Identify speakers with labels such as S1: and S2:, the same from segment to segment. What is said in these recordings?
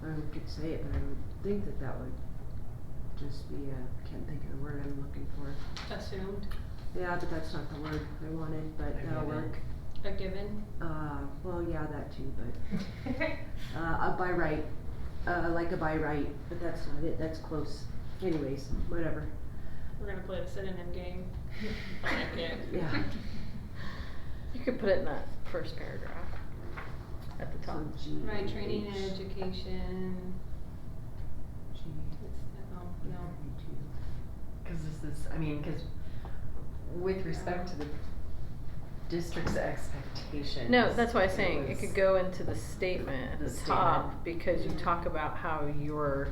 S1: someone could say it, and I would think that that would just be a, can't think of the word I'm looking for.
S2: assumed,
S1: Yeah, but that's not the word I wanted, but that'll work.
S2: a given.
S1: Uh, well, yeah, that too, but, uh, a by right, uh, like a by right, but that's not it, that's close. Anyways, whatever,
S2: We're gonna play the synonym game. I like it.
S1: yeah.
S3: You could put it in that first paragraph at the top.
S1: So G
S2: Right, training and
S1: H,
S2: education.
S1: G
S2: It's, oh, no.
S1: E
S4: Cause this is, I mean, cause with respect to the district's expectations.
S3: No, that's why I'm
S4: it
S3: saying it
S4: was-
S3: could go into the statement at
S4: The
S3: the, top
S4: statement.
S3: because you
S2: Mhm.
S3: talk about how you're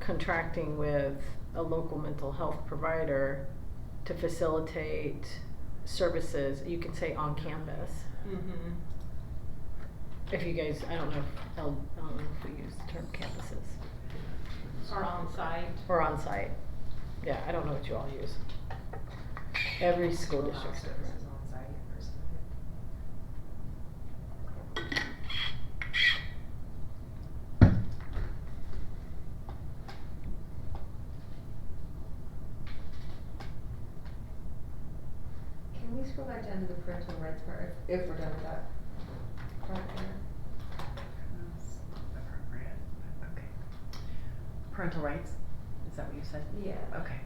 S3: contracting with a local mental health provider to facilitate services. You can say on campus.
S2: Mm-hmm.
S3: If you guys, I don't know, if L, I don't know if we use the term campuses
S2: Or on site.
S3: or on site. Yeah, I don't know what you all use. Every school
S4: Allow
S3: district's different.
S4: services on site or something.
S5: Can we scroll back down to the parental rights part, if, if we're done with that? part there?
S4: That's Appropriate, okay. Parental rights, is that what you said?
S5: Yeah.
S4: Okay.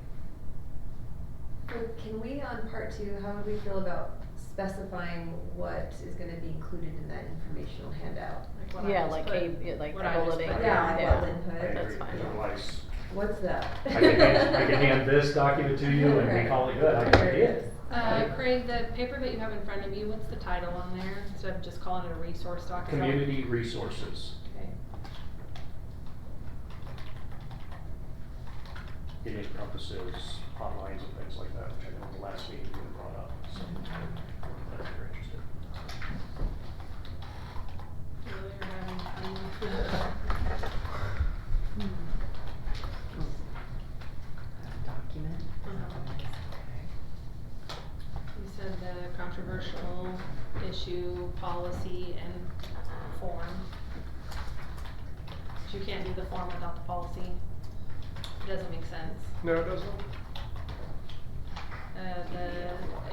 S5: So can we, on part two, how do we feel about specifying what is gonna be included in that informational handout?
S2: Like what I
S3: Yeah,
S2: just
S3: like
S2: put-
S3: a, yeah, like
S2: what
S3: the
S2: I just
S3: bulletin.
S2: put.
S5: Yeah,
S3: Yeah.
S5: well, input.
S6: I
S3: That's
S6: agree,
S3: fine.
S6: otherwise,
S5: What's that?
S6: I can hand, I can hand this document to you and we call it good, I can
S5: There it is.
S2: Uh, Craig, the paper that you have in front of you, what's the title on there, instead of just calling it a resource doc? is that-
S6: Community resources,
S2: Okay.
S6: it encompasses hotlines and things like that, which I know the last meeting you had brought up, so. if you're
S2: Earlier,
S6: interested.
S2: um,
S1: T. Hmm. Oh.
S4: Document.
S2: Uh-huh. You said the controversial issue, policy, and form. But you can't do the form without the policy. It doesn't make sense.
S6: No, it doesn't?
S2: Uh, the,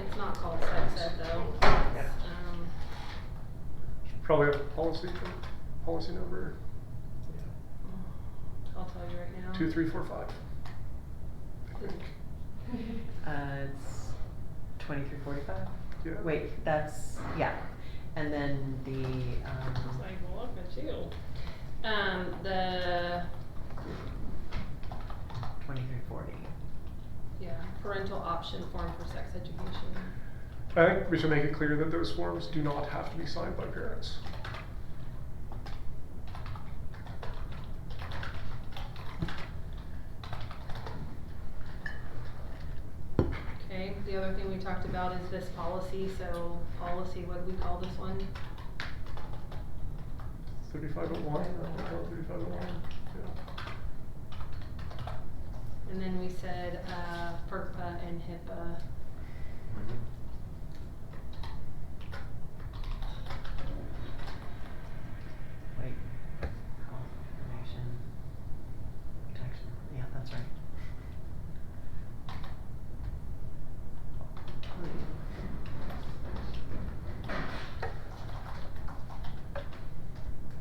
S2: it's not called sex ed though. It's,
S6: Yeah.
S2: Um,
S7: Probably have a policy, policy number
S2: I'll tell you right now.
S7: two, three, four, five. I think,
S4: Uh, it's twenty-three forty-five?
S7: yeah.
S4: Wait, that's, yeah. And then the,
S2: It's
S4: um,
S2: like, well, look at you. Um, the,
S4: twenty-three forty.
S2: yeah, parental option form for sex education.
S7: I think we should make it clear that those forms do not have to be signed by parents.
S2: Okay, the other thing we talked about is this policy, so policy, what do we call this one?
S7: Thirty-five oh one, thirty-five oh one, yeah.
S2: And then we said, uh, FERPA and HIPAA.
S4: Wait. Health information protection. Yeah, that's right.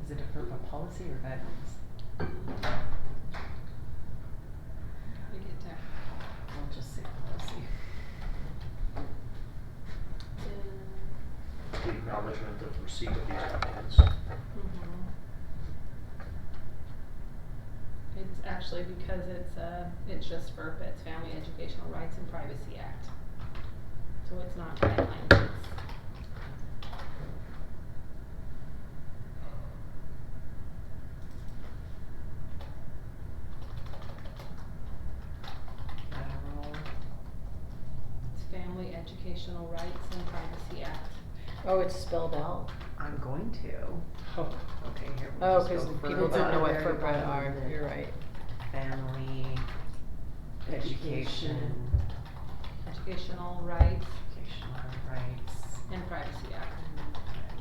S4: Is it a FERPA policy or guidelines?
S2: We get to,
S4: I'll just say policy.
S2: uh,
S6: The acknowledgement of receipt of these documents.
S2: mhm. It's actually because it's, uh, it's just FERPA, it's Family Educational Rights and Privacy Act. So it's not guidelines, it's
S4: Federal.
S2: It's Family Educational Rights and Privacy Act.
S3: Oh, it's spelled out.
S4: I'm going to.
S7: Oh,
S4: Okay, here we
S3: Oh,
S4: just go
S3: because
S4: FERPA.
S3: people don't know what
S4: Very
S3: FERPA are.
S4: relevant.
S3: You're right.
S4: Family.
S1: Education.
S4: Education.
S2: Educational Rights
S4: Educational rights.
S2: and Privacy Act.